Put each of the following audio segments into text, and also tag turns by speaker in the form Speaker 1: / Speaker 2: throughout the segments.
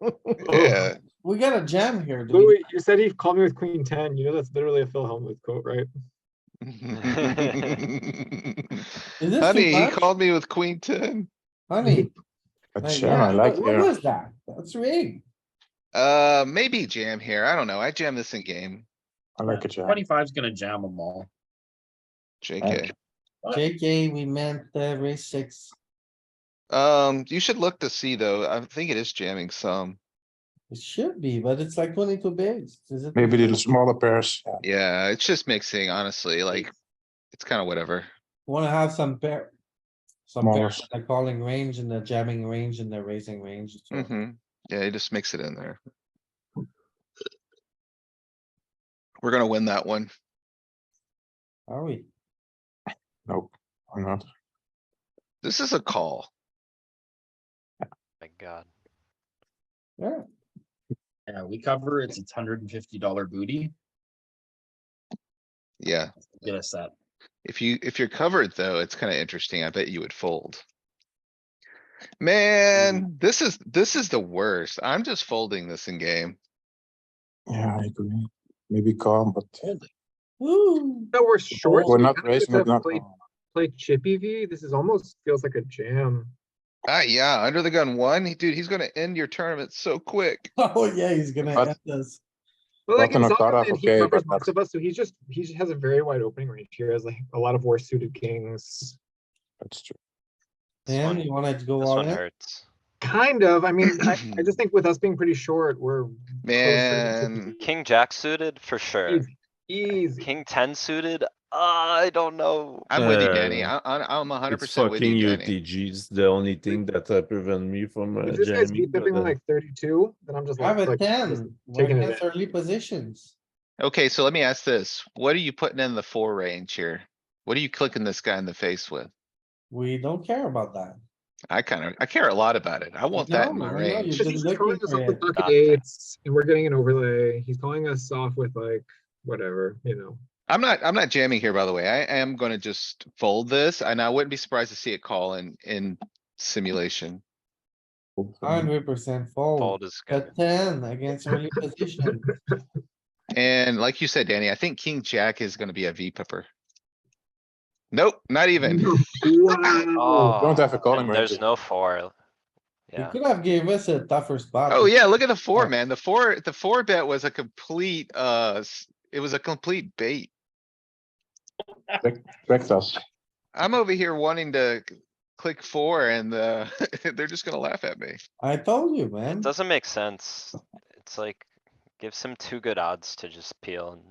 Speaker 1: Oh.
Speaker 2: Oh.
Speaker 3: We got a jam here. do we
Speaker 1: Louis, you said he called me with queen ten. You know that's literally a Phil Hellmuth quote, right?
Speaker 3: Is this too
Speaker 4: Honey, he
Speaker 3: much?
Speaker 4: called me with queen ten.
Speaker 3: not? Honey.
Speaker 2: A
Speaker 3: like,
Speaker 2: jam, I
Speaker 3: yeah,
Speaker 2: like
Speaker 3: What
Speaker 2: here.
Speaker 3: was that? That's rigged.
Speaker 4: Uh, maybe jam here. I don't know. I jam this in game.
Speaker 2: I like a jam.
Speaker 5: Twenty-five's gonna jam them all.
Speaker 4: JK.
Speaker 3: JK, we meant the race six.
Speaker 4: Um, you should look to see though. I think it is jamming some.
Speaker 3: It should be, but it's like twenty-two bigs. Is it?
Speaker 2: Maybe the smaller pairs. yeah.
Speaker 4: Yeah, it's just mixing, honestly, like, it's kinda whatever.
Speaker 3: Wanna have some pair. Some pair,
Speaker 2: Smalls.
Speaker 3: the calling range and the jamming range and the raising range. so-
Speaker 4: hmm Yeah, you just mix it in there. We're gonna win that one.
Speaker 3: Are we?
Speaker 2: Nope, I'm not.
Speaker 4: This is a call.
Speaker 6: My god.
Speaker 3: Yeah,
Speaker 5: Yeah, we cover, it's a hundred and fifty dollar booty,
Speaker 4: Yeah,
Speaker 5: get us that.
Speaker 4: if you, if you're covered though, it's kinda interesting. I bet you would fold. Man, this is, this is the worst. I'm just folding this in game.
Speaker 2: Yeah, I agree. Maybe calm, but
Speaker 3: Ooh,
Speaker 1: No, we're short.
Speaker 2: we're
Speaker 1: we
Speaker 2: not
Speaker 1: kinda
Speaker 2: raising,
Speaker 1: just
Speaker 2: we're
Speaker 1: have
Speaker 2: not.
Speaker 1: Play,
Speaker 2: calm.
Speaker 1: play chippy V. This is almost feels like a jam.
Speaker 4: Ah, yeah, under the gun one, he- dude, he's gonna end your tournament so quick.
Speaker 3: oh yeah, he's gonna
Speaker 2: But-
Speaker 3: have this.
Speaker 1: But like
Speaker 2: Button
Speaker 1: in
Speaker 2: or
Speaker 1: Zondervan,
Speaker 2: cutoff,
Speaker 1: he
Speaker 2: okay,
Speaker 1: covers
Speaker 2: but
Speaker 1: most of us, so he's just he just has a very wide opening range here. Has like a lot of worse suited kings.
Speaker 2: That's true.
Speaker 6: This
Speaker 3: Damn,
Speaker 6: one-
Speaker 3: you wanted to go
Speaker 6: This
Speaker 3: all
Speaker 6: one
Speaker 3: in?
Speaker 6: hurts.
Speaker 1: Kind of. I mean, I, I just think with us being pretty short, we're
Speaker 4: Man,
Speaker 6: King jack suited for sure.
Speaker 1: easy. easy.
Speaker 6: King ten suited, Ah, I don't know.
Speaker 4: I'm with you,
Speaker 7: Uh,
Speaker 4: Danny. I, I, I'm hundred
Speaker 7: It's
Speaker 4: percent with
Speaker 7: fucking
Speaker 4: you, Danny.
Speaker 7: UTG's the only thing that uh, prevent me from uh,
Speaker 1: If this guy's
Speaker 7: jamming.
Speaker 1: beat bipping
Speaker 7: but, uh,
Speaker 1: like 32, then I'm just
Speaker 3: Have
Speaker 1: like,
Speaker 3: a
Speaker 1: like just-
Speaker 3: ten, we're
Speaker 1: taking
Speaker 3: against early positions.
Speaker 4: Okay, so let me ask this. What are you putting in the four range here? What are you clicking this guy in the face with?
Speaker 3: We don't care about that.
Speaker 4: I kinda, I care a lot about it. I want that
Speaker 3: know,
Speaker 4: in my
Speaker 3: I know,
Speaker 4: range.
Speaker 3: You've
Speaker 1: Because he's
Speaker 3: been
Speaker 1: calling
Speaker 3: looking
Speaker 1: us
Speaker 3: for
Speaker 1: off with
Speaker 3: it.
Speaker 1: bucket
Speaker 6: Not fair.
Speaker 1: eights, and we're getting an overlay. He's calling us off with like whatever, you know.
Speaker 4: I'm not, I'm not jamming here, by the way. I am gonna just fold this and I wouldn't be surprised to see it call in, in simulation.
Speaker 3: Hundred percent
Speaker 6: Fold
Speaker 3: fold.
Speaker 6: is
Speaker 3: A
Speaker 6: good.
Speaker 3: ten against early position.
Speaker 4: And like you said, Danny, I think king jack is gonna be a V pepper. Nope, not even.
Speaker 1: Wow.
Speaker 2: Don't have a
Speaker 6: Oh,
Speaker 2: calling
Speaker 6: and
Speaker 2: range.
Speaker 6: There's no four.
Speaker 3: You
Speaker 6: Yeah,
Speaker 3: could have gave us a tougher spot.
Speaker 4: Oh, yeah, look at the four,
Speaker 3: Yeah.
Speaker 4: man. The four, the four bet was a complete, uh, s- it was a complete bait.
Speaker 2: Correct us.
Speaker 4: I'm over here wanting to c- click four and, uh, they're just gonna laugh at me.
Speaker 3: I told you, man.
Speaker 6: doesn't make sense. It's like, gives him two good odds to just peel and.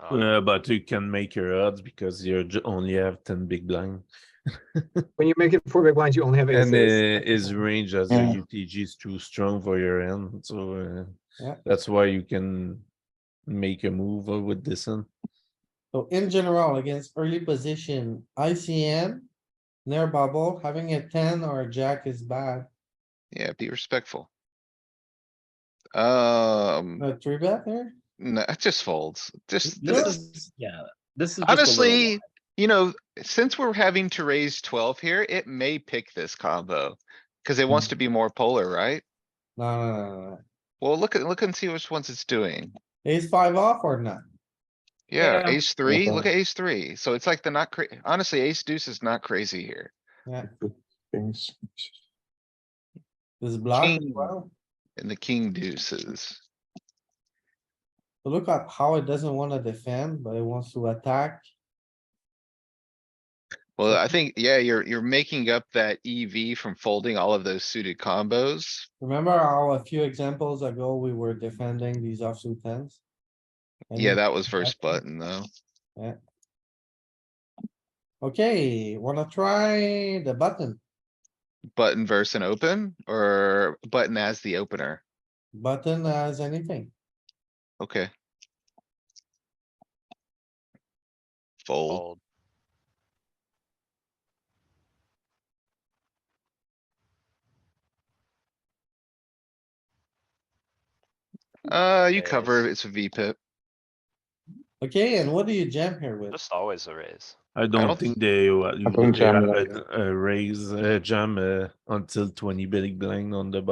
Speaker 6: I don't know.
Speaker 7: uh, but you can make your odds because you j- only have ten big blind,
Speaker 1: When you make it four big blinds, you only have
Speaker 7: and
Speaker 1: aces.
Speaker 7: uh, his range as
Speaker 2: Yeah.
Speaker 7: the UTG is too strong for your end, so uh,
Speaker 3: Yeah.
Speaker 7: that's why you can make a move uh, with this one.
Speaker 3: So in general, against early position, ICM, near bubble, having a ten or a jack is bad.
Speaker 4: Yeah, be respectful. Um,
Speaker 3: A three bet there?
Speaker 4: no, it just folds, just,
Speaker 5: This
Speaker 3: Yeah.
Speaker 5: is, yeah, this is. just a little
Speaker 4: honestly, you know, since we're having to raise twelve here, it may pick this combo. Cause it wants
Speaker 5: Mm.
Speaker 4: to be more polar, right?
Speaker 3: No, no, no, no, no.
Speaker 4: Well, look at, look and see which ones it's doing.
Speaker 3: Ace five off or not?
Speaker 4: Yeah,
Speaker 5: Yeah. Mm-hmm.
Speaker 4: ace three, look at ace three. So it's like the not cra- honestly, ace deuce is not crazy here.
Speaker 2: Things.
Speaker 3: This block as
Speaker 4: King.
Speaker 3: well.
Speaker 4: And the king deuces.
Speaker 3: So Look at how it doesn't wanna defend, but it wants to attack.
Speaker 4: Well,
Speaker 5: Mm-hmm.
Speaker 4: I think, yeah, you're, you're making up that EV from folding all of those suited combos.
Speaker 3: Remember how a few examples ago, we were defending these offsuit tens? And
Speaker 5: Mm-hmm.
Speaker 4: Yeah,
Speaker 3: then-
Speaker 4: that was first button though.
Speaker 3: Okay, wanna try the button?
Speaker 4: Button versus an open or button as the opener.
Speaker 3: Button as anything.
Speaker 4: Okay. Fold.
Speaker 6: Fold.
Speaker 4: Uh, you
Speaker 6: Raise.
Speaker 4: cover, it's a V pip.
Speaker 3: Okay, and what do you jam here with?
Speaker 6: Just always a raise.
Speaker 7: I don't,
Speaker 4: don't
Speaker 7: think they, uh,
Speaker 2: don't
Speaker 7: they
Speaker 2: jam
Speaker 7: have
Speaker 2: like
Speaker 7: a, a raise uh, jam uh, until twenty uh, big blind on the